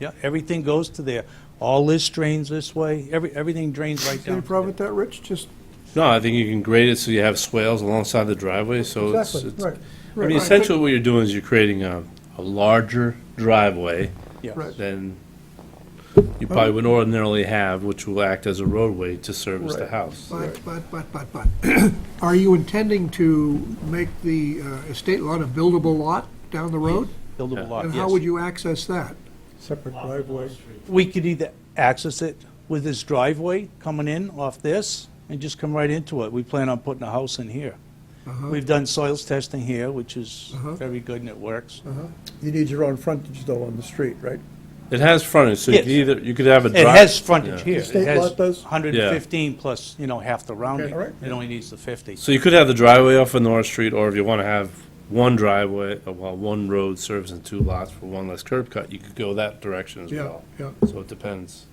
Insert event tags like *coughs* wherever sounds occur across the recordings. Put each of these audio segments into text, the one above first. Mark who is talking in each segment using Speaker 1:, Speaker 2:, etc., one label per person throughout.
Speaker 1: Yeah, everything goes to there. All this drains this way, every, everything drains right
Speaker 2: Any
Speaker 1: down. to
Speaker 2: problem
Speaker 1: there.
Speaker 2: with that, Rich? Just,
Speaker 3: No, I think you can grade it so you have swales alongside the driveway, so it's,
Speaker 2: exactly,
Speaker 3: it's,
Speaker 2: right.
Speaker 3: I mean,
Speaker 2: right.
Speaker 3: essentially what you're doing is you're creating a, a larger driveway
Speaker 1: Yes.
Speaker 2: Right.
Speaker 3: than you probably would ordinarily have, which will act as a roadway to service the
Speaker 2: Right.
Speaker 3: house.
Speaker 4: But, but, but, but, but, *clears throat* are you intending to make the uh, estate lot a buildable lot down the road?
Speaker 1: Buildable lot,
Speaker 4: And
Speaker 1: yes.
Speaker 4: how would you access that?
Speaker 2: Separate driveway.
Speaker 1: We could either access it with this driveway coming in off this and just come right into it. We plan on putting a house in here.
Speaker 2: Uh-huh.
Speaker 1: We've done soils testing here, which is very good and it works.
Speaker 2: Uh-huh. You need your own frontage though on the street, right?
Speaker 3: It has frontage, so you
Speaker 1: Yes.
Speaker 3: could either, you could have a drive.
Speaker 1: It has frontage
Speaker 3: yeah.
Speaker 1: here.
Speaker 2: state lot does?
Speaker 1: 115 plus, you know, half the rounding.
Speaker 2: all right.
Speaker 1: It only needs the 50.
Speaker 3: So you could have the driveway off of North Street, or if you want to have one driveway, uh, well, one road servicing two lots for one less curb cut, you could go that direction as
Speaker 4: Yeah,
Speaker 3: well.
Speaker 4: yeah.
Speaker 3: So it depends.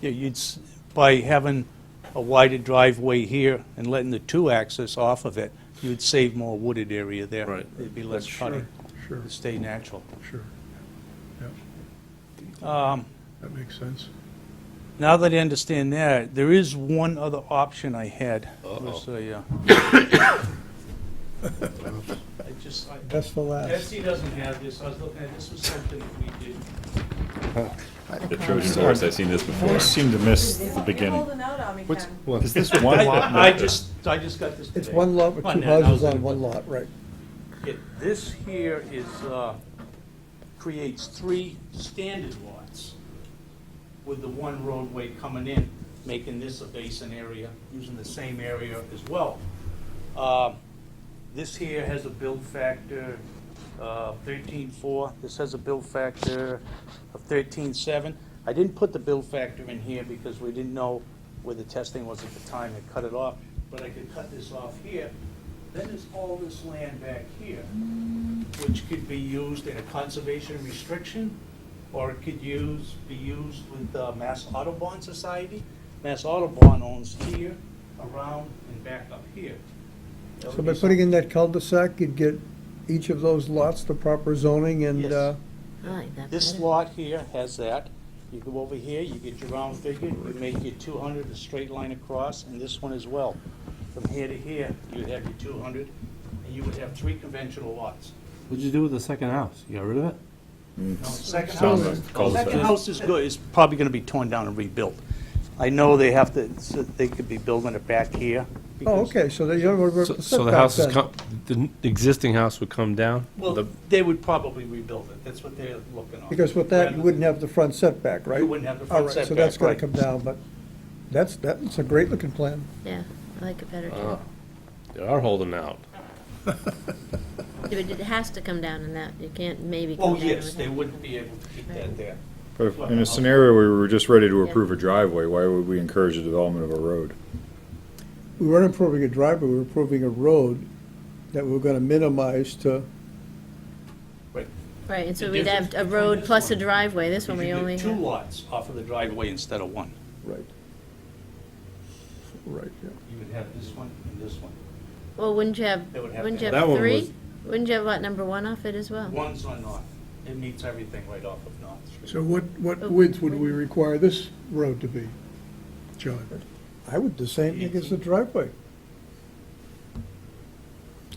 Speaker 1: Yeah, you'd, s- by having a wider driveway here and letting the two access off of it, you'd save more wooded area there.
Speaker 3: Right.
Speaker 1: It'd be less cutting,
Speaker 4: Sure,
Speaker 1: it'd stay natural.
Speaker 4: sure. Yeah,
Speaker 1: Um,
Speaker 4: that makes sense.
Speaker 1: Now that I understand that, there is one other option I had.
Speaker 3: Uh-oh.
Speaker 1: Was a,
Speaker 2: *coughs*
Speaker 1: uh, I just, I-
Speaker 2: That's the last.
Speaker 1: Betsy doesn't have this, I was looking at, this was something that we did.
Speaker 5: The Trojan horse, I've seen this before.
Speaker 6: seem to miss the
Speaker 5: You're
Speaker 6: beginning.
Speaker 5: holding out on me, Ken.
Speaker 6: Is this one
Speaker 1: *laughs*
Speaker 6: lot?
Speaker 1: I I just, I just got this today.
Speaker 2: It's one lot with
Speaker 1: Come on
Speaker 2: two
Speaker 1: now, that
Speaker 2: houses
Speaker 1: was
Speaker 2: on
Speaker 1: it.
Speaker 2: one lot, right. Oh,
Speaker 1: Yeah, This here is, uh, creates three standard lots with the one roadway coming in, making this a basin area, using the same area as well. Uh, This here has a build factor uh, 13.4, this has a build factor of 13.7. I didn't put the build factor in here because we didn't know where the testing was at the time, I cut it off, but I could cut this off here. Then there's all this land back here, which could be used in a conservation restriction, or it could use, be used with the Mass Audubon Society. Mass Audubon owns here, around, and back up here. That would
Speaker 2: So
Speaker 1: be
Speaker 2: by
Speaker 1: something-
Speaker 2: putting in that cul-de-sac, you'd get each of those lots the proper zoning and,
Speaker 1: Yes.
Speaker 2: uh,
Speaker 1: This lot here has that. You go over here, you get your round figure, you make your two hundred, a straight line across, and this one as well. From here to here, you'd have your two hundred, and you would have three conventional lots.
Speaker 3: What'd you do with the second house? You got rid of it?
Speaker 1: Now, Second
Speaker 5: Sounds
Speaker 1: house,
Speaker 5: like cul-de-sac.
Speaker 1: second house is good, is probably gonna be torn down and rebuilt. I know they have to, so they could be building it back here.
Speaker 2: oh,
Speaker 1: because-
Speaker 2: okay, so they don't worry
Speaker 3: So
Speaker 2: about the
Speaker 3: so the
Speaker 2: setback
Speaker 3: house is,
Speaker 2: then.
Speaker 3: com- the n- existing house would come down?
Speaker 1: Well,
Speaker 3: The-
Speaker 1: they would probably rebuild it. That's what they're looking on.
Speaker 2: Because with that, you
Speaker 1: Rather-
Speaker 2: wouldn't have the front setback, right?
Speaker 1: wouldn't have the front
Speaker 2: All right, so
Speaker 1: setback,
Speaker 2: that's gonna
Speaker 1: right.
Speaker 2: come down, but that's, that's a great looking plan.
Speaker 7: Yeah, I like it better too.
Speaker 3: Ah,
Speaker 1: Uh,
Speaker 3: They are holding out.
Speaker 7: Yeah, But it has to come down in that, you can't maybe come
Speaker 1: Oh,
Speaker 7: down.
Speaker 1: yes,
Speaker 7: with
Speaker 1: they
Speaker 7: that.
Speaker 1: wouldn't be able to keep that there.
Speaker 6: But if- In a scenario where we were just ready to approve a driveway, why would we encourage the development of a road?
Speaker 2: We weren't improving a driveway, we were improving a road that we were gonna minimize to,
Speaker 7: Right, and
Speaker 1: The
Speaker 7: so we'd have
Speaker 1: difference
Speaker 7: a
Speaker 1: between
Speaker 7: road
Speaker 1: this
Speaker 7: plus a
Speaker 1: one
Speaker 7: driveway, this one
Speaker 1: You
Speaker 7: we
Speaker 1: could do
Speaker 7: only
Speaker 1: Two
Speaker 7: have.
Speaker 1: lots off of the driveway instead of one.
Speaker 2: right. Right, yeah.
Speaker 1: You would have this one and this one.
Speaker 7: Well, wouldn't you have,
Speaker 1: They would have
Speaker 7: wouldn't
Speaker 1: to-
Speaker 7: you
Speaker 3: That
Speaker 7: have
Speaker 3: one
Speaker 7: three?
Speaker 3: was-
Speaker 7: Wouldn't you have lot number one off it as well?
Speaker 1: One's on North. It meets everything right off of North Street.
Speaker 4: So what, what width would we require this road to be, John?
Speaker 2: I would the same thing as the driveway.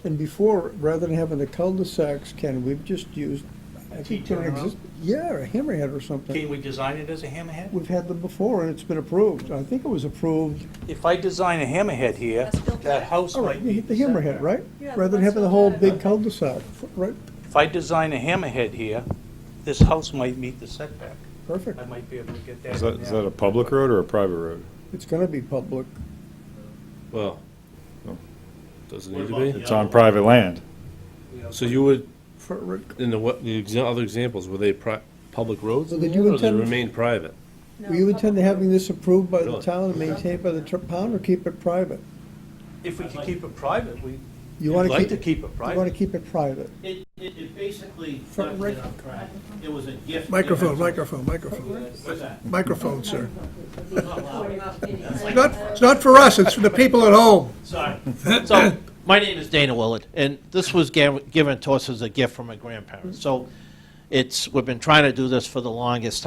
Speaker 2: And before, rather than having the cul-de-sacs, Ken, we've just used. I think they're
Speaker 1: T-turnaround?
Speaker 2: exist- Yeah, a hammerhead or
Speaker 1: Can
Speaker 2: something.
Speaker 1: we design it as a hammerhead?
Speaker 2: We've had them before and it's been approved. I think it was approved,
Speaker 1: If I design a hammerhead here,
Speaker 5: That's built
Speaker 1: that
Speaker 5: back.
Speaker 1: house
Speaker 2: all right,
Speaker 1: might
Speaker 2: you
Speaker 1: be.
Speaker 2: hit the hammerhead, right?
Speaker 5: Yeah,
Speaker 2: Rather than
Speaker 5: that's
Speaker 2: having the
Speaker 5: what
Speaker 2: whole
Speaker 5: the-
Speaker 2: big cul-de-sac, right?
Speaker 1: If I design a hammerhead here, this house might meet the setback.
Speaker 2: Perfect.
Speaker 1: I might be able to get that.
Speaker 6: Is that,
Speaker 1: in
Speaker 6: is
Speaker 1: there.
Speaker 6: that a public road or a private road?
Speaker 2: It's gonna be public.
Speaker 3: Well,
Speaker 6: No.
Speaker 3: doesn't
Speaker 1: What
Speaker 3: need
Speaker 1: about
Speaker 3: to
Speaker 1: the
Speaker 3: be.
Speaker 6: It's on private land.
Speaker 1: Yeah.
Speaker 3: So you would,
Speaker 2: For,
Speaker 3: in the, what, the exa- other examples, were they pri- public roads?
Speaker 2: Well,
Speaker 3: in
Speaker 2: did
Speaker 3: the
Speaker 2: you
Speaker 3: end, or they
Speaker 2: intend-
Speaker 3: Remain private?
Speaker 2: were you intend to having this approved by the
Speaker 3: Really?
Speaker 2: town and maintained by the tr- pound or keep it private?
Speaker 1: If we could keep it private, we,
Speaker 2: You
Speaker 1: would
Speaker 2: wanna
Speaker 1: like to
Speaker 2: keep,
Speaker 1: keep it
Speaker 2: you wanna
Speaker 1: private.
Speaker 2: keep it private.
Speaker 8: It, it, it basically
Speaker 2: Front
Speaker 8: left
Speaker 2: right-
Speaker 8: it on track. It was a gift.
Speaker 4: Microphone, microphone, microphone,
Speaker 8: What's that?
Speaker 4: microphone, sir.
Speaker 5: It's like-
Speaker 4: Not, it's not for us, it's for the people at home.
Speaker 8: Sorry.
Speaker 9: *laughs* So, my name is Dana Willard, and this was ga- given to us as a gift from my grandparents. So, it's, we've been trying to do this for the longest